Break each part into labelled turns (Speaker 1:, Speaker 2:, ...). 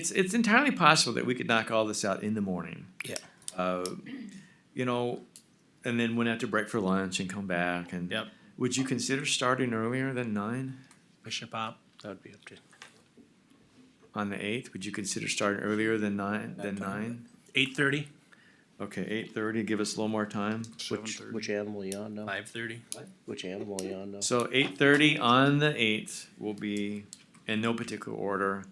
Speaker 1: It's, it's entirely possible that we could knock all this out in the morning,
Speaker 2: Yeah.
Speaker 1: uh, you know, and then went out to break for lunch and come back and.
Speaker 2: Yep.
Speaker 1: Would you consider starting earlier than nine
Speaker 2: Commissioner Pop? That would be up to.
Speaker 1: on the eighth? Would you consider starting earlier than nine, than nine?
Speaker 2: Eight thirty?
Speaker 1: Okay, eight thirty, give us a little more time.
Speaker 3: Which, which animal you on now?
Speaker 2: Five thirty?
Speaker 3: Which animal you on now?
Speaker 1: So eight thirty on the eighth will be, in no particular order,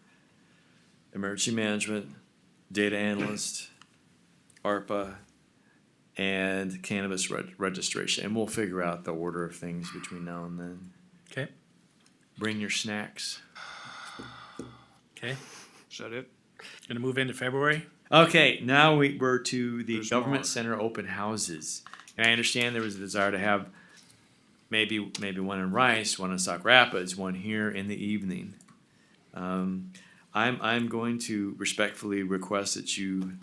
Speaker 1: emergency management, data analyst, ARPA, and cannabis reg- registration, and we'll figure out the order of things between now and then.
Speaker 2: Okay,
Speaker 1: Bring your snacks.
Speaker 2: okay.
Speaker 4: Is that it?
Speaker 2: Gonna move into February?
Speaker 1: Okay, now we, we're to the
Speaker 4: There's
Speaker 1: government
Speaker 4: more.
Speaker 1: center open houses, and I understand there was a desire to have maybe maybe one in Rice, one in Sauk Rapids, one here in the evening. Um, I'm I'm going to respectfully request that you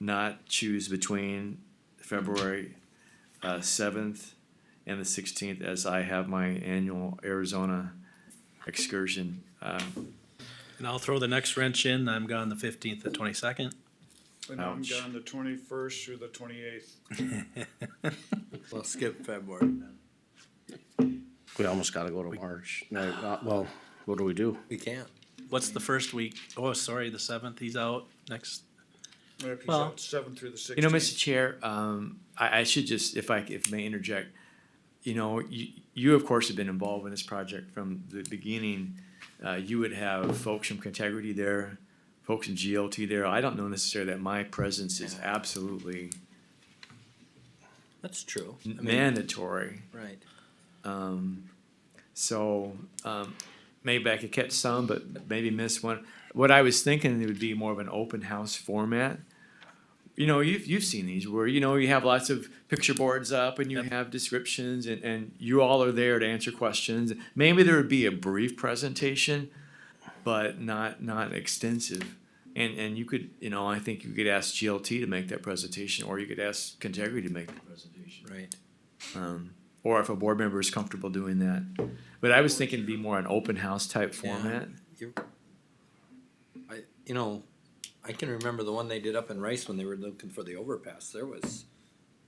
Speaker 1: not choose between February uh, seventh and the sixteenth, as I have my annual Arizona excursion. Um,
Speaker 2: And I'll throw the next wrench in. I'm gone the fifteenth, the twenty-second.
Speaker 4: And I'm
Speaker 1: Ouch.
Speaker 4: gone the twenty-first through the twenty-eighth.
Speaker 5: We'll skip February then.
Speaker 3: We almost gotta go to March. No, uh, well, what do we do?
Speaker 5: We can't.
Speaker 2: What's the first week? Oh, sorry, the seventh, he's out next. Well-
Speaker 4: Seven through the sixteenth.
Speaker 1: You know, Mr. Chair, um, I, I should just, if I, c- if may interject, you know, you, you of course have been involved in this project from the beginning. Uh, you would have folks from Contegrity there, folks from GLT there. I don't know necessarily that my presence is absolutely
Speaker 5: That's true. I mean,
Speaker 1: mandatory.
Speaker 5: Right.
Speaker 1: Um, so, um, maybe I could catch some, but maybe miss one. What I was thinking it would be more of an open house format. You know, you've, you've seen these where, you know, you have lots of picture boards up and you have descriptions and, and you all are there to answer questions. Maybe there would be a brief presentation, but not, not extensive. And, and you could, you know, I think you could ask GLT to make that presentation or you could ask Contegrity to make the presentation
Speaker 5: Right.
Speaker 1: um, or if a board member is comfortable doing that. But I was thinking it'd be more an open house type
Speaker 5: Yeah.
Speaker 1: format.
Speaker 5: I, you know, I can remember the one they did up in Rice when they were looking for the overpass. There was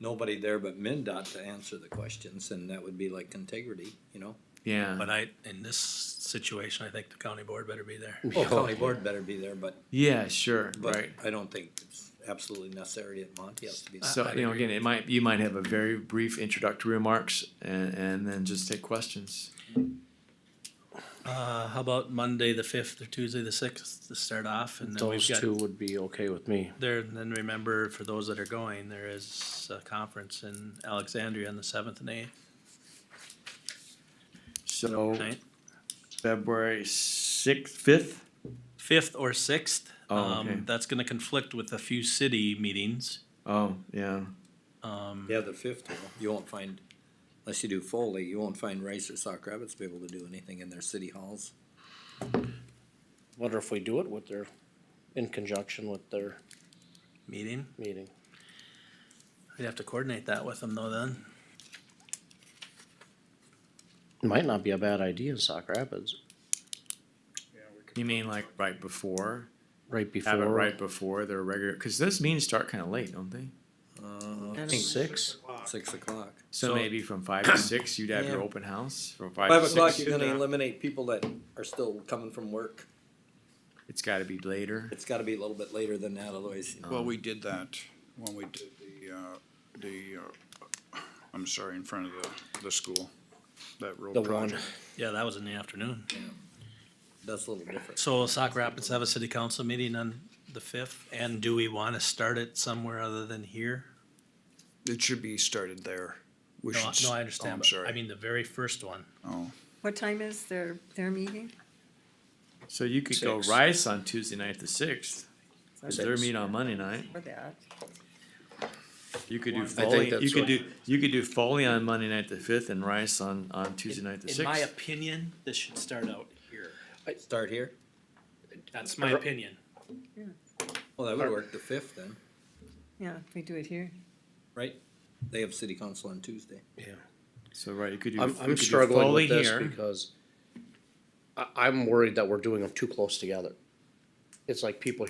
Speaker 5: nobody there but MinDOT to answer the questions and that would be like integrity, you know?
Speaker 1: Yeah,
Speaker 2: But I, in this situation, I think the county board better be there.
Speaker 5: Oh, county board better be there, but,
Speaker 1: yeah, sure,
Speaker 5: but
Speaker 1: right.
Speaker 5: I don't think it's absolutely necessary at Monticello to be. there.
Speaker 1: So,
Speaker 2: I'd
Speaker 1: you know,
Speaker 2: agree
Speaker 1: again, it might, you might have a very brief introductory remarks and, and then just take questions.
Speaker 2: Uh, how about Monday, the fifth, or Tuesday, the sixth to start off? And then we've
Speaker 3: Those
Speaker 2: got
Speaker 3: two would be okay with me.
Speaker 2: There, and then remember, for those that are going, there is a conference in Alexandria on the seventh and eighth,
Speaker 1: So
Speaker 2: ninth.
Speaker 1: February sixth, fifth?
Speaker 2: fifth or sixth.
Speaker 1: Oh,
Speaker 2: um,
Speaker 1: okay.
Speaker 2: That's going to conflict with a few city meetings.
Speaker 1: Oh, yeah,
Speaker 2: Um,
Speaker 5: Yeah, the fifth, well, you won't find, unless you do Foley, you won't find Rice or Sauk Rapids be able to do anything in their city halls.
Speaker 3: Wonder if we do it with their, in conjunction with their
Speaker 2: Meeting.
Speaker 3: meeting.
Speaker 2: We'd have to coordinate that with them though. Then
Speaker 3: Might not be a bad idea in Sauk Rapids,
Speaker 4: Yeah, we could-
Speaker 1: you mean like right before,
Speaker 3: right
Speaker 1: have it
Speaker 3: before
Speaker 1: right before their regular, cause those meetings start kinda late, don't they?
Speaker 5: Uh,
Speaker 3: six.
Speaker 5: six o'clock.
Speaker 1: So
Speaker 2: So-
Speaker 1: maybe from five to six, you'd have your
Speaker 5: Yeah.
Speaker 1: open house from five
Speaker 5: Five
Speaker 1: to
Speaker 5: o'clock,
Speaker 1: six. uh,
Speaker 5: you're gonna eliminate people that are still coming from work.
Speaker 1: It's gotta be later.
Speaker 5: It's gotta be a little bit later than that, otherwise. you know.
Speaker 4: Well, we did that when we did the, uh, the, uh, I'm sorry, in front of the, the school, that road
Speaker 3: The one.
Speaker 4: project.
Speaker 2: yeah, that was in the afternoon.
Speaker 5: That's a little different.
Speaker 2: So Sauk Rapids have a city council meeting on the fifth, and do we want to start it somewhere other than here?
Speaker 4: It should be started there. We
Speaker 2: No,
Speaker 4: should
Speaker 2: no, I
Speaker 4: s-
Speaker 2: understand.
Speaker 4: oh, I'm
Speaker 2: but I
Speaker 4: sorry.
Speaker 2: mean the very first one.
Speaker 4: Oh,
Speaker 6: What time is their, their meeting?
Speaker 1: So you could go
Speaker 5: Six.
Speaker 1: Rice on Tuesday night the sixth, cause their
Speaker 5: Six.
Speaker 1: meet on Monday night.
Speaker 6: For that.
Speaker 1: You could do
Speaker 4: I think
Speaker 1: Foley, you
Speaker 5: that's
Speaker 1: could
Speaker 5: what-
Speaker 1: do, you could do Foley on Monday night the fifth and Rice on, on Tuesday night the
Speaker 2: in my
Speaker 1: sixth.
Speaker 2: opinion, this should start out here.
Speaker 5: Start here?
Speaker 2: That's my opinion.
Speaker 5: Well, that would work, the fifth then,
Speaker 6: Yeah, if we do it here.
Speaker 5: right? They have city council on Tuesday.
Speaker 1: So, right, you could do, you
Speaker 3: I'm, I'm
Speaker 1: could do
Speaker 3: struggling
Speaker 1: Foley
Speaker 3: with this
Speaker 1: here.
Speaker 3: because I, I'm worried that we're doing them too close together. it's like people